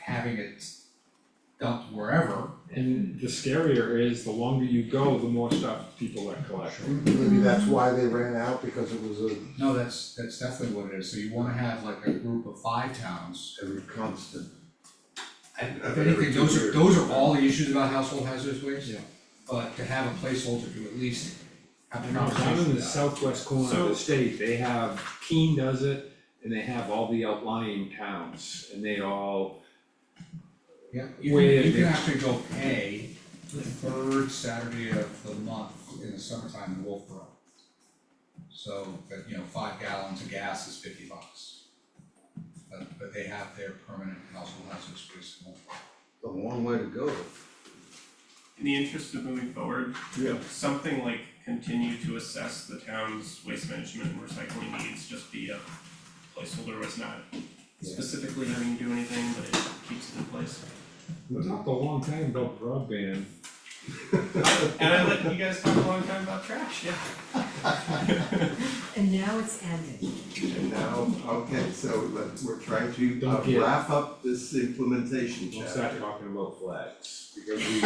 having it dumped wherever. And the scarier is, the longer you go, the more stuff people are collecting. Maybe that's why they ran out, because it was a No, that's, that's definitely what it is, so you wanna have like a group of five towns. every constant. And Have if it every anything, two those are, years. those are all the issues about household hazardous waste. Yeah. But to have a placeholder to at least have You a know, down conversation in the about it. southwest corner of the state, they have, Keene does it, and they have all the outlying towns, and they all, Yeah, you Way can, you in can there. actually go pay the third Saturday of the month in the summertime in Wolfboro. So, but you know, five gallons of gas is fifty bucks. But, but they have their permanent household hazardous waste in Wolfboro. A long way to go. in the interest of moving forward, Yeah. something like continue to assess the town's waste management and recycling needs, just be a placeholder, it's not Yeah. specifically having to do anything, but it keeps it in place. we talked a long time about broadband. And I let you guys talk a long time about trash, yeah. And now it's ended. And now, okay, so let, we're trying to uh, Don't get- wrap up this implementation We'll chapter. start talking about flags, because we, we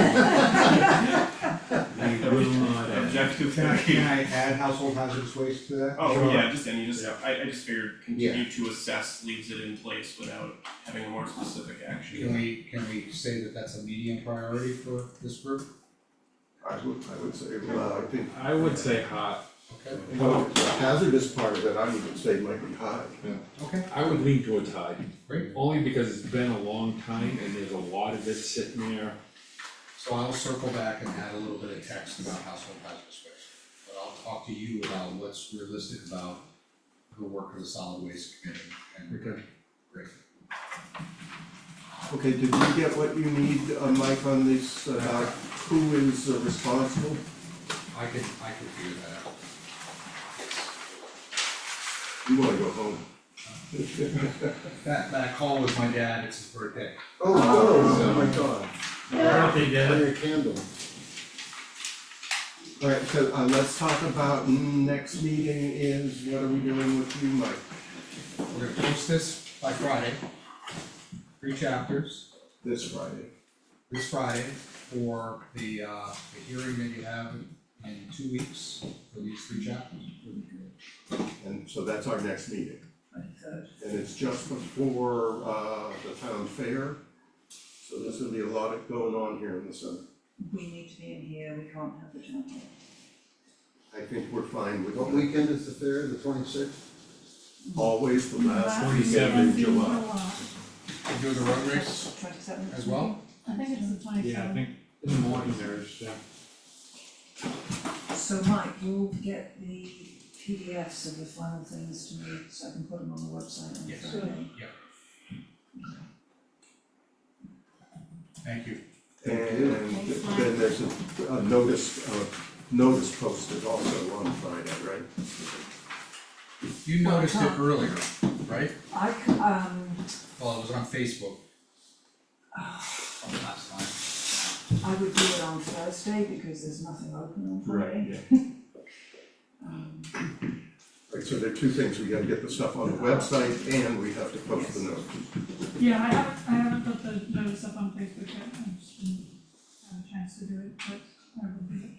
will not end. Objective Can I, can three. I add household hazardous waste to that? Oh, Sure. yeah, just any, just, Yeah. I I just figured continue to assess leaves it in place without having a more specific action. Can we, can we say that that's a medium priority for this group? I would, I would say, well, I think I would say hot, Okay, well, the hazardous part of it, I would say might be high. okay, I would lean towards high, great. only because it's been a long time and there's a lot of it sitting there. So I'll circle back and add a little bit of text about household hazardous waste. But I'll talk to you about what's realistic about the work of the solid waste committee and. Okay. Great. Okay, did you get what you need, uh, Mike, on this, about who is uh, responsible? I can, I can figure that out. You wanna go home? That, that call was my dad, it's his birthday. Oh, Oh no, my god. bring a candle. Alright, so uh, let's talk about next meeting is, what are we doing with you, Mike? We're gonna post this by Friday. Three chapters This Friday. this Friday for the, uh, the hearing that you have in two weeks for these three chapters. And so that's our next meeting. And it's just before uh the town fair, so there's gonna be a lot of going on here in the summer. We need to be in here, we can't have the town hall. I think we're fine with What that. weekend is the fair, the twenty-sixth? always the last twenty-seventh weekend in July. And do the road race Twenty-seventh. as well? I think it's the twenty-seventh. Yeah, I think in the morning there's, yeah. So Mike, you'll get the PDFs of the final things to me, so I can put them on the website on Yes. Friday. Thank you. And then there's a a notice, uh notice posted also on Friday, right? You noticed it earlier, right? I c- um, Well, it was on Facebook. From last time. I would do it on Thursday because there's nothing open on Friday. Um, Right, so there are two things, we gotta get the stuff on the website and we have to post the note. Yeah, I haven't, I haven't put the notice up on Facebook yet, I just didn't have a chance to do it, but I will do it.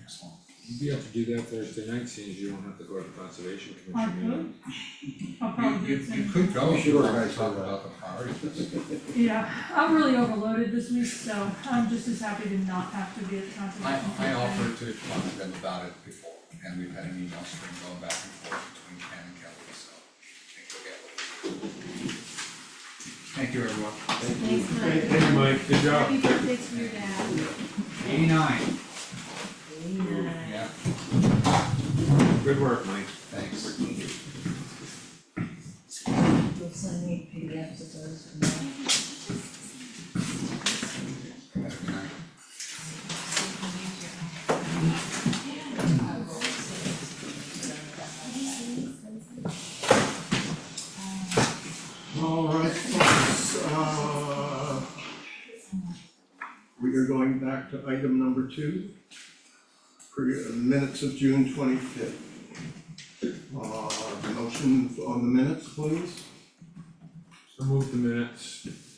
Excellent. You'd be able to do that Thursday night, seeing as you don't have to go to the conservation I commission meeting. could. I'll probably You, do you, it you soon. could go if you Sure. wanted to talk about the priorities. Yeah, I'm really overloaded this week, so I'm just as happy to not have to be at the conservation. I, I Commission. offered to talk to them about it before, and we've had an email string going back and forth between Ken and Kelly, so I think we'll get what we Thank you, everyone. Thanks, Mike. Hey, Mike, good Happy birthday to your dad. Eighty-nine, Eighty-nine. yeah, Good work, Mike. thanks. You'll send me PDFs of those from there. Have a good night. Alright, folks, uh. We are going back to item number two. pre- uh, Minutes of June twenty-fifth. Uh, motion on the minutes, please. So move the minutes.